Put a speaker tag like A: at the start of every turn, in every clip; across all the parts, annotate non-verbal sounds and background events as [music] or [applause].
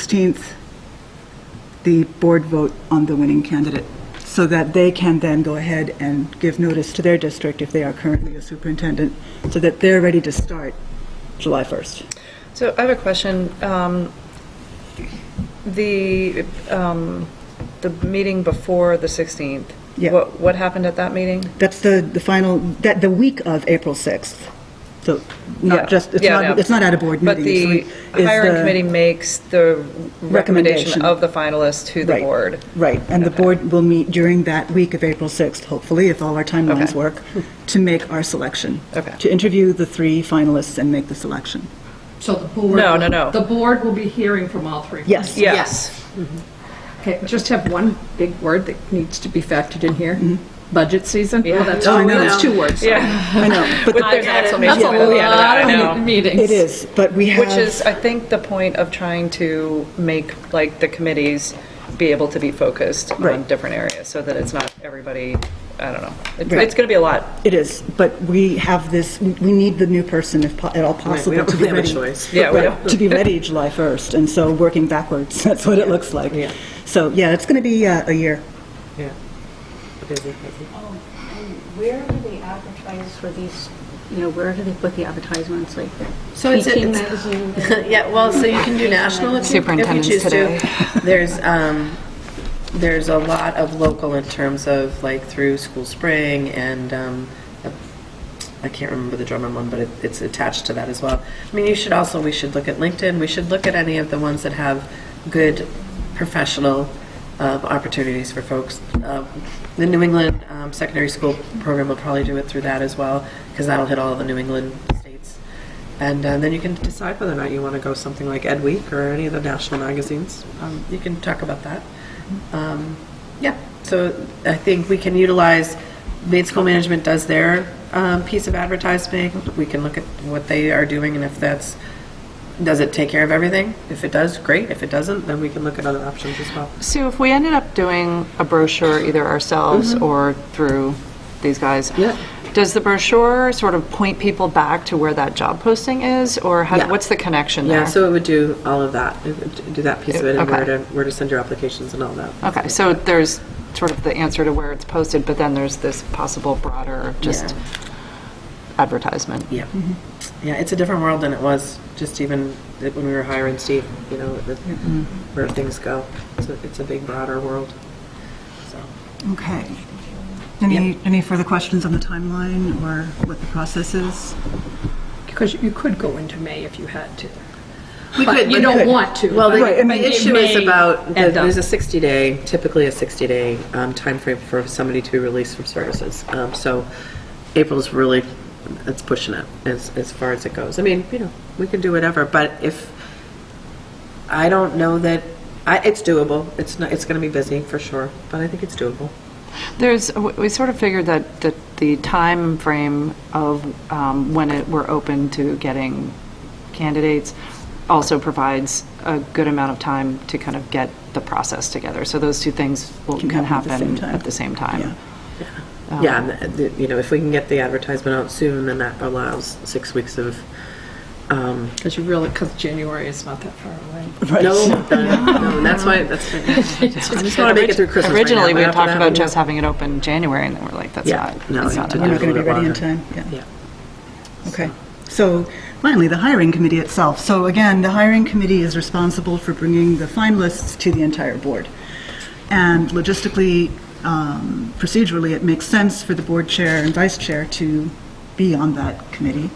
A: 16th, the board vote on the winning candidate, so that they can then go ahead and give notice to their district if they are currently a superintendent, so that they're ready to start July 1st.
B: So I have a question. Um, The, um, the meeting before the 16th?
A: Yeah.
B: What, what happened at that meeting?
A: That's the, the final, that, the week of April 6th. So
B: Yeah.
A: not just, it's
B: Yeah,
A: not,
B: yeah.
A: it's not at a board meeting.
B: But the hiring committee makes the
A: Recommendation.
B: recommendation of the finalists to the board.
A: Right, and the board will meet during that week of April 6th, hopefully, if all our timelines
B: Okay.
A: work, to make our selection.
B: Okay.
A: To interview the three finalists and make the selection.
C: So the board?
B: No, no, no.
C: The board will be hearing from all three?
A: Yes.
C: Yeah.
B: Yes.
C: Okay, just have one big word that needs to be factored in here.
A: Mm-hmm.
C: Budget season? Well, that's
A: Oh, I
C: two-
A: know.
C: that's two words. sorry.
B: Yeah.
A: I [laughs] know, but
B: With there's an exclamation point at the end of that, I know.
C: meetings.
A: It is, but we have.
B: Which is, I think, the point of trying to make, like, the committees be able to be focused on
A: Right.
B: different areas, so that it's not everybody, I don't know. It's,
A: Right.
B: it's going to be a lot.
A: It is, but we have this, we need the new person if po- at all possible
D: don't
A: to be
D: have a
A: ready.
D: choice.
B: Yeah, we
A: Right,
B: don't.
A: To be ready July 1st, and so working backwards, [laughs] that's what it looks like.
D: Yeah.
A: So, yeah, it's going to be uh, a year.
D: Yeah. Busy, busy.
E: Where do they advertise for these, you know, where do they put the advertisements, like?
F: So it's a-
E: Teaching
F: it's- [laughs]
E: magazine?
F: Yeah, well, so you can do national if you- if you
G: Superintendents
F: choose
G: today.
F: to. There's, um, there's a lot of local in terms of like through School Spring and, um, I can't remember the Drummond one, but it- it's attached to that as well. I mean, you should also, we should look at LinkedIn, we should look at any of the ones that have good professional um, opportunities for folks. Um, The New England um, Secondary School Program will probably do it through that as well, because that'll hit all the New England states. And uh, then you can
D: Decide whether or not you want to go something like Ed Week or any of the national magazines.
F: Um, You can talk about that. Um, Yeah, so I think we can utilize, Maine School Management does their um, piece of advertising. We can look at what they are doing and if that's, does it take care of everything? If it does, great. If it doesn't,
D: Then we can look at other options as well.
G: Sue, if we ended up doing a brochure either ourselves
B: Mm-hmm.
G: or through these guys, does the brochure sort of point people back to where that job posting is, or how,
D: Yeah.
G: what's the connection there?
D: Yeah, so it would do all of that, It would do that piece of it and where
G: Okay.
D: to, where to send your applications and all that.
G: Okay, so there's sort of the answer to where it's posted, but then there's this possible broader just advertisement.
F: yeah. Yeah, it's a different world than it was just even
D: When we were hiring Steve, you know, the- where things go. It's a- It's a big broader world.
A: Okay. Any, any further questions on the timeline or what the process is?
C: Because you could go into May if you had to.
F: We
C: But
F: could,
C: you
F: but-
C: don't want to.
F: Well,
A: Right, I
F: the,
A: mean,
F: the
C: it
F: issue
C: may
F: is
C: uh,
F: about, the-
C: end up-
F: there's
D: There's a 60-day, typically a 60-day um, timeframe for somebody to be released from services. Um, So April's really, it's pushing it as, as far as it goes. I mean, you know, we can do whatever, but if, I don't know that, I, it's doable. It's not, it's going to be busy for sure, but I think it's doable.
G: There's, w- we sort of figured that, that the time frame of um, when it, we're open to getting candidates also provides a good amount of time to kind of get the process together. So those two things will,
A: Can
G: can
A: happen at the same
G: happen
A: time.
G: at the same
A: Yeah.
G: time.
C: Oh.
D: Yeah, and uh, the- you know, if we can get the advertisement out soon, then that allows six weeks of, um,
C: Because you really, because January is not that far away.
D: no, [laughs] no, and that's why, that's, I just want to make it through Christmas right now,
G: Originally, we
D: but
G: had
D: after
G: talked
D: that,
G: about
D: we'll-
G: just having it open in January, and then we're like, that's
D: Yeah,
G: not,
D: no,
G: that's
D: you
G: not
D: did
A: We're
G: enough.
A: not going to be
D: little bit
A: ready in
D: longer.
A: time, yeah.
D: Yeah.
A: Okay. So finally, the hiring committee itself. So again, the hiring committee is responsible for bringing the finalists to the entire board. And logistically, um, procedurally, it makes sense for the board chair and vice chair to be on that committee.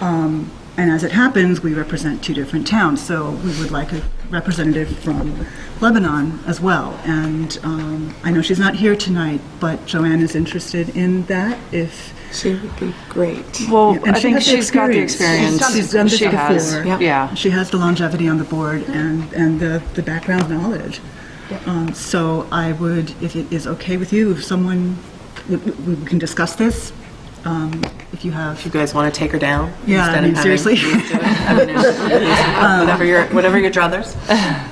A: Um, And as it happens, we represent two different towns, so we would like a representative from Lebanon as well. And um, I know she's not here tonight, but Joanne is interested in that if
G: Well,
A: yeah, and
G: I
A: she has
G: think
A: the
G: she's got the
A: experience.
G: experience.
A: She's done this
G: She has,
A: before.
G: Yeah.
A: She has the longevity on the board and, and the, the background knowledge. Um, So I would, if it is okay with you, if someone, we- we we can discuss this, um, if you have.
F: you guys want to take her down?
A: Yeah, I
F: instead of
A: mean,
F: having-
A: seriously.
F: [laughs]
D: um,
F: Whatever your, whatever your druthers.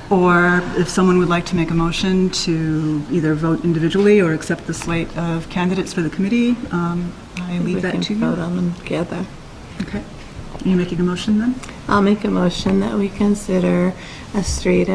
A: [laughs] Or if someone would like to make a motion to either vote individually or accept the slate of candidates for the committee, um, I leave that to you.
H: vote on them together.
A: Okay. Are you making a motion then?
H: I'll make a motion that we consider a street